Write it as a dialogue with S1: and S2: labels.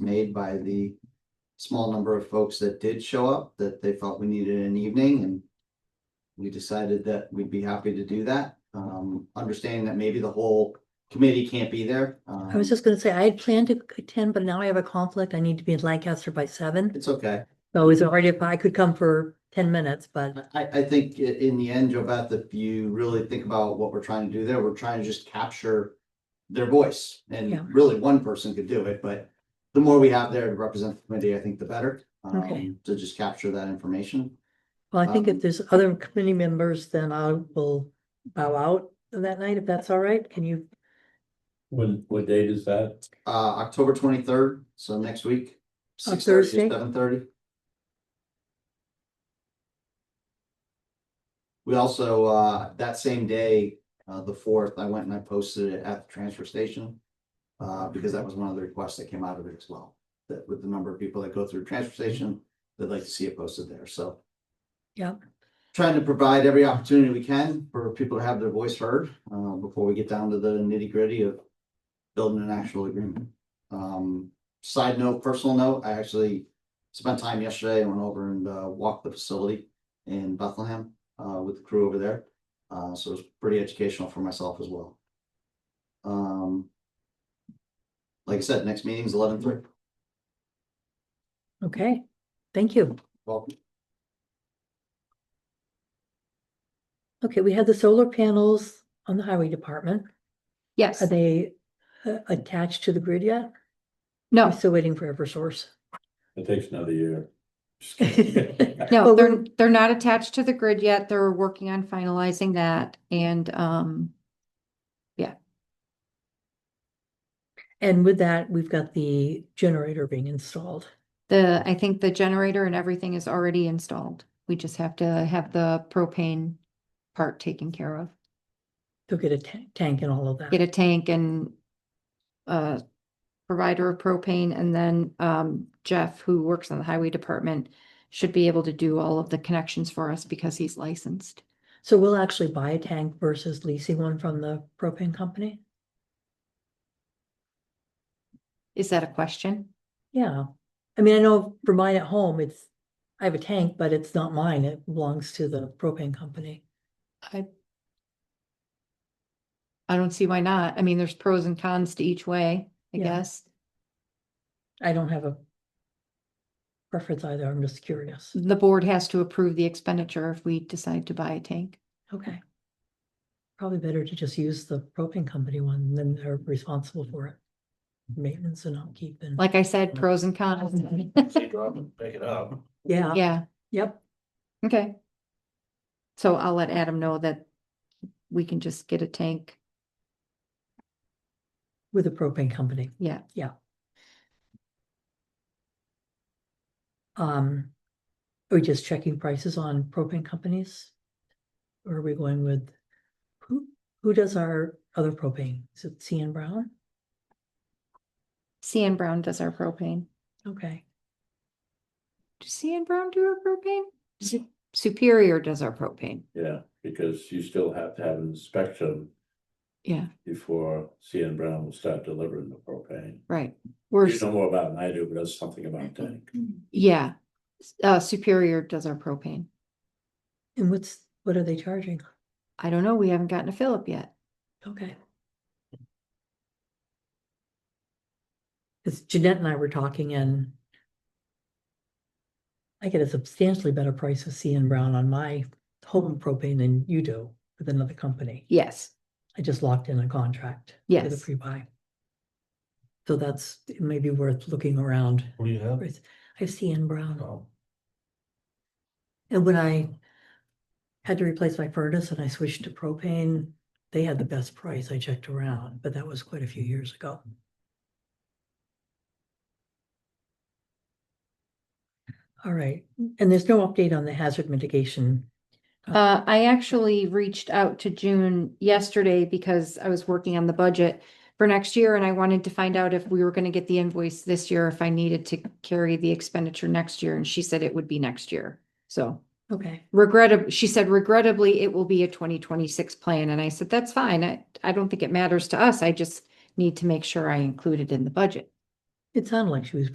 S1: made by the small number of folks that did show up, that they felt we needed an evening and we decided that we'd be happy to do that, um, understanding that maybe the whole committee can't be there.
S2: I was
S1: um,
S2: just gonna say, I had planned to attend, but now I have a conflict. I need to be in Lancaster by seven.
S1: It's okay.
S2: So it's already, if I could come for ten minutes, but
S1: I, I think i- in the end, Joveth, if you really think about what we're trying to do there, we're trying to just capture their voice
S2: Yeah.
S1: and really one person could do it, but the more we have there to represent the committee, I think the better. um,
S2: Okay.
S1: To just capture that information.
S2: well, I think if
S1: Um,
S2: there's other committee members, then I will bow out that night, if that's all right. Can you?
S3: When, what date is that?
S1: Uh, October twenty-third, so next week.
S2: On Thursday?
S1: Seven thirty. We also, uh, that same day, uh, the fourth, I went and I posted it at the transfer station. Uh, because that was one of the requests that came out of it as well, that with the number of people that go through transfer station, they'd like to see it posted there, so.
S2: Yeah.
S1: Trying to provide every opportunity we can for people to have their voice heard, uh, before we get down to the nitty gritty of building an actual agreement. Um, side note, personal note, I actually spent time yesterday, I went over and uh, walked the facility in Bethlehem uh, with the crew over there. Uh, so it was pretty educational for myself as well. Um, like I said, next meeting's eleven three.
S2: Okay, thank you.
S1: Well,
S2: Okay, we had the solar panels on the highway department.
S4: Yes,
S2: Are they uh, attached to the grid yet? I'm
S4: no,
S2: still waiting for Eversource.
S3: It takes another year. Just kidding.
S2: Well,
S4: no, they're,
S2: we're-
S4: they're not attached to the grid yet. They're working on finalizing that and, um,
S2: And with that, we've got the generator being installed.
S4: the, I think the generator and everything is already installed. We just have to have the propane part taken care of.
S2: They'll get a ta- tank and all of that.
S4: Get a tank and uh provider of propane and then, um, Jeff, who works on the highway department, should be able to do all of the connections for us because he's licensed.
S2: So we'll actually buy a tank versus leasing one from the propane company?
S4: Is that a question?
S2: Yeah. I mean, I know for mine at home, it's, I have a tank, but it's not mine. It belongs to the propane company.
S4: I I don't see why not. I mean, there's pros and cons to each way, I
S2: Yeah.
S4: guess.
S2: I don't have a preference either. I'm just curious.
S4: The board has to approve the expenditure if we decide to buy a tank.
S2: Okay. Probably better to just use the propane company one, then they're responsible for it. Maintenance and upkeep and,
S4: Like I said, pros and cons.
S1: Mm-hmm.
S3: She drop it, pick it up.
S2: yeah,
S4: Yeah,
S2: yep,
S4: okay. So I'll let Adam know that we can just get a tank.
S2: with the propane company.
S4: Yeah,
S2: Um, are we just checking prices on propane companies? Or are we going with, who, who does our other propane? Is it C N Brown?
S4: CN Brown does our propane.
S2: Okay,
S4: Does CN Brown do our propane? Su- Superior does our propane.
S3: Yeah, because you still have to have an inspection
S4: Yeah,
S3: before CN Brown will start delivering the propane.
S4: right. We're,
S3: You know more about it than I do, but that's something about tank.
S4: yeah, S- uh, Superior does our propane.
S2: and what's, what are they charging?
S4: I don't know, we haven't gotten a fill up yet.
S2: Okay. Cause Jeanette and I were talking and I get a substantially better price with C N Brown on my home propane than you do with another company.
S4: Yes,
S2: I just locked in a contract. for the
S4: Yes.
S2: Pre-buy. So that's it may be worth looking around.
S3: What do you have? Um,
S2: for it. I see Anne
S3: Oh,
S2: Brown. And when I had to replace my furnace and I switched to propane, they had the best price. I checked around, but that was quite a few years ago. All right, and there's no update on the hazard mitigation.
S4: uh, I actually reached out to June yesterday because I was working on the budget for next year and I wanted to find out if we were gonna get the invoice this year, if I needed to carry the expenditure next year, and she said it would be next year. So
S2: Okay.
S4: regrettably, she said regrettably, it will be a twenty twenty-six plan, and I said, that's fine, I, I don't think it matters to us, I just need to make sure I include it in the budget.
S2: It sounded like she was